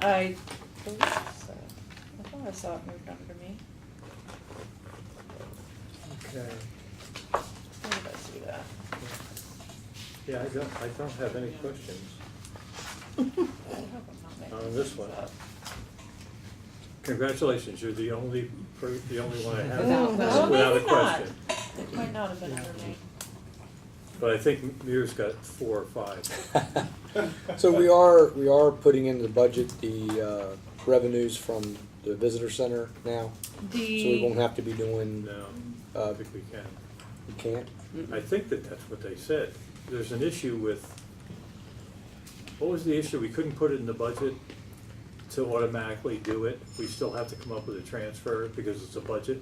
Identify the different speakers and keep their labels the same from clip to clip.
Speaker 1: I believe so. I thought I saw it moved under me.
Speaker 2: Okay.
Speaker 1: Where did I see that?
Speaker 2: Yeah, I don't, I don't have any questions.
Speaker 1: I hope I'm not making
Speaker 3: Uh,
Speaker 2: On this one.
Speaker 1: up.
Speaker 2: Congratulations, you're the only, per- the only one I
Speaker 4: Without
Speaker 2: have.
Speaker 4: question. No,
Speaker 2: Without a
Speaker 1: maybe not.
Speaker 2: question.
Speaker 1: It might not have been under me.
Speaker 2: But I think Muir's got four or five.
Speaker 5: So we are, we are putting into the budget the uh, revenues from the visitor center now, so we won't
Speaker 1: The,
Speaker 5: have to be doing,
Speaker 2: No, um, I
Speaker 5: uh,
Speaker 2: think we can.
Speaker 5: we can't.
Speaker 2: I think that that's what they said. There's an issue with, what was the issue? We couldn't put it in the budget to automatically do it. We still have to come up with a transfer because it's a budget.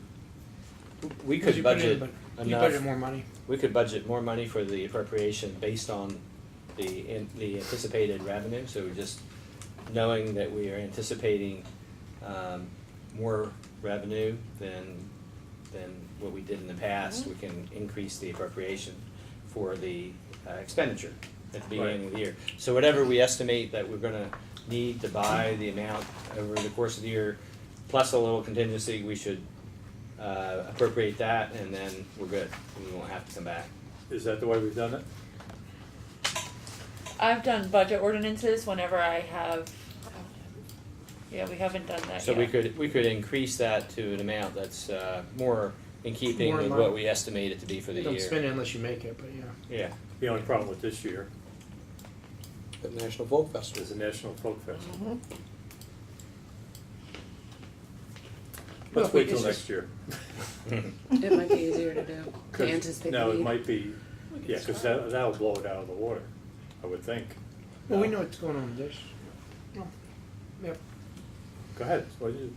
Speaker 3: We
Speaker 4: Because
Speaker 3: could
Speaker 4: you put in,
Speaker 3: budget,
Speaker 4: but You
Speaker 3: enough.
Speaker 4: budget more money.
Speaker 3: we could budget more money for the appropriation based on the, in- the anticipated revenue, so we're just knowing that we are anticipating, um, more revenue than, than what we did in the past, we can increase the appropriation for the uh, expenditure at the beginning of the year. So whatever we estimate that we're gonna need to buy the amount over the course of the year, plus a little contingency, we should uh, appropriate that, and then we're good. We won't have to come back.
Speaker 2: Is that the way we've done it?
Speaker 1: I've done budget ordinances whenever I have, yeah, we haven't done that yet.
Speaker 3: So we could, we could increase that to an amount that's uh, more in keeping
Speaker 4: More in
Speaker 3: with
Speaker 4: line.
Speaker 3: what we estimate it to be for the
Speaker 4: You
Speaker 3: year.
Speaker 4: don't spend it unless you make it, but yeah.
Speaker 3: Yeah,
Speaker 2: The only problem with this year
Speaker 5: The National Folk Festival.
Speaker 2: is the National Folk Festival.
Speaker 4: Well,
Speaker 2: Let's
Speaker 4: if we
Speaker 2: wait till
Speaker 4: could
Speaker 2: next year.
Speaker 6: It might be easier to do, to
Speaker 2: 'Cause-
Speaker 6: anticipate the
Speaker 2: No, it
Speaker 6: need.
Speaker 2: might be, yeah, because that, that'll blow it out of the water, I would think.
Speaker 4: Well, we know what's going on with this. Yep.
Speaker 2: Go ahead, what do you-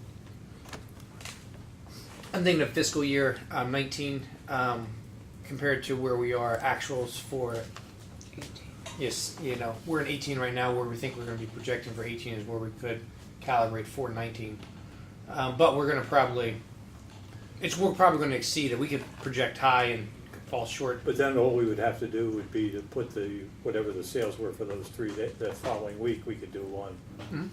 Speaker 4: I'm thinking of fiscal year um, 19 um, compared to where we are actuals for. Yes, you know, we're in 18 right now. Where we think we're going to be projecting for 18 is where we could calibrate for 19. Um, but we're going to probably, it's we're probably going to exceed it. We could project high and fall short.
Speaker 2: But then all we would have to do would be to put the, whatever the sales were for those three, that, that following week, we could do one
Speaker 4: Mhm.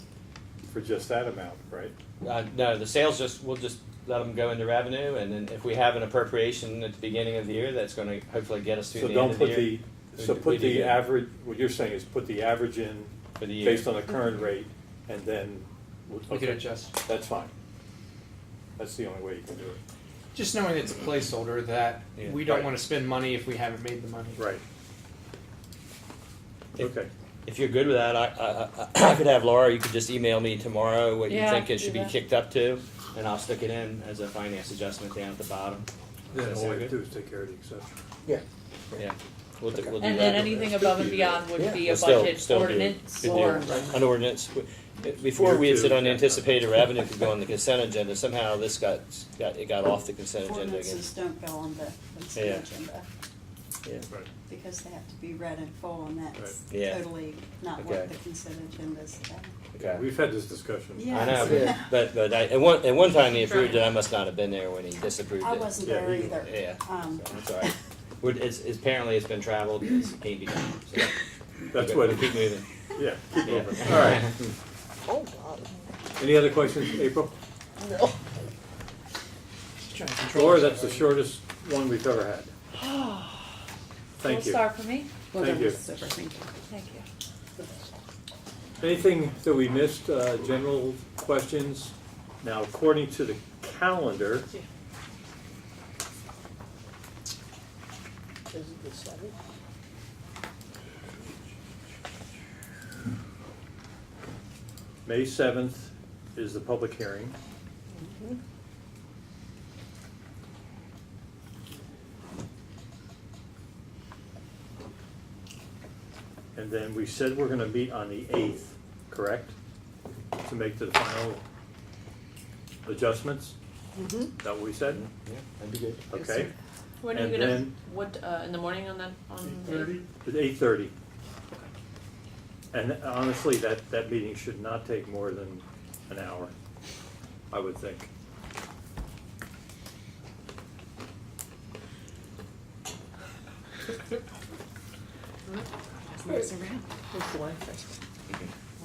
Speaker 2: for just that amount, right?
Speaker 3: Uh, no, the sales just, we'll just let them go into revenue, and then if we have an appropriation at the beginning of the year, that's gonna hopefully get us through
Speaker 2: So
Speaker 3: the
Speaker 2: don't
Speaker 3: end of the
Speaker 2: put
Speaker 3: year
Speaker 2: the, so
Speaker 3: We- we
Speaker 2: put
Speaker 3: did
Speaker 2: the
Speaker 3: it.
Speaker 2: average, what you're saying is put the average in
Speaker 3: for the year.
Speaker 2: based on the current rate, and then, we'll-
Speaker 4: Mm-hmm. We could
Speaker 2: okay,
Speaker 4: adjust.
Speaker 2: that's fine. That's the only way you can do it.
Speaker 4: Just knowing it's a placeholder that
Speaker 3: Yeah.
Speaker 4: we don't
Speaker 2: Right.
Speaker 4: want to spend money if we haven't made the money.
Speaker 2: Right.
Speaker 3: If-
Speaker 2: Okay,
Speaker 3: If you're good with that, I, I, I- I could have Laura, you could just email me tomorrow what you
Speaker 1: Yeah,
Speaker 3: think it
Speaker 1: do
Speaker 3: should be
Speaker 1: that.
Speaker 3: kicked up to, and I'll stick it in as a finance adjustment down at the bottom.
Speaker 2: then
Speaker 3: Does that
Speaker 2: all we
Speaker 3: sound
Speaker 2: have to do
Speaker 3: good?
Speaker 2: is take care of the exception.
Speaker 5: Yeah.
Speaker 3: Yeah, we'll do, we'll do that.
Speaker 1: And then anything above and beyond would
Speaker 5: Yeah,
Speaker 1: be a
Speaker 3: We'll still-
Speaker 1: budget
Speaker 3: still do-
Speaker 1: ordinance
Speaker 3: could do
Speaker 1: or.
Speaker 3: An ordinance. We- Before we had said unanticipated revenue could go on the consent agenda, somehow this got, got, it got off the consent agenda again.
Speaker 7: Ordinances don't go on the
Speaker 3: Yeah.
Speaker 7: consent agenda,
Speaker 3: Yeah.
Speaker 2: Right.
Speaker 7: because they have to be read in full, and that's
Speaker 2: Right.
Speaker 3: Yeah.
Speaker 7: totally not what
Speaker 3: Okay.
Speaker 7: the consent agenda's about.
Speaker 3: Okay.
Speaker 2: We've had this discussion.
Speaker 7: Yeah.
Speaker 3: I know, but-
Speaker 7: Yeah.
Speaker 3: but, but I, at one, at one time he approved it, I must not have been there when he disapproved it.
Speaker 7: I wasn't
Speaker 2: Yeah,
Speaker 7: there
Speaker 2: you-
Speaker 7: either.
Speaker 3: Yeah, so
Speaker 7: Um,
Speaker 3: that's all right. We're, it's, it's- apparently it's been traveled, it's can't be done, so.
Speaker 2: That's
Speaker 3: Okay,
Speaker 2: what,
Speaker 3: we'll Keep moving.
Speaker 2: yeah, keep
Speaker 3: Yeah.
Speaker 2: moving. All right. Any other questions, April?
Speaker 4: Just trying to control
Speaker 2: Laura, that's the
Speaker 4: ourselves.
Speaker 2: shortest one we've ever had. Thank you.
Speaker 1: Gold star for me,
Speaker 6: Well,
Speaker 2: Thank
Speaker 6: that was
Speaker 2: you.
Speaker 6: super, thank you.
Speaker 1: thank you.
Speaker 2: Anything that we missed, uh, general questions? Now, according to the calendar, May 7th is the public hearing. And then we said we're gonna meet on the 8th, correct? To make the final adjustments? Mm-hmm. That what we said?
Speaker 3: Yeah, that'd be good.
Speaker 2: Okay,
Speaker 8: When are you
Speaker 2: And
Speaker 8: gonna,
Speaker 2: then-
Speaker 8: what, uh, in the morning on that, on the?
Speaker 2: it's 8:30. And honestly, that, that meeting should not take more than an hour, I would think.
Speaker 6: Nice around.
Speaker 3: Okay.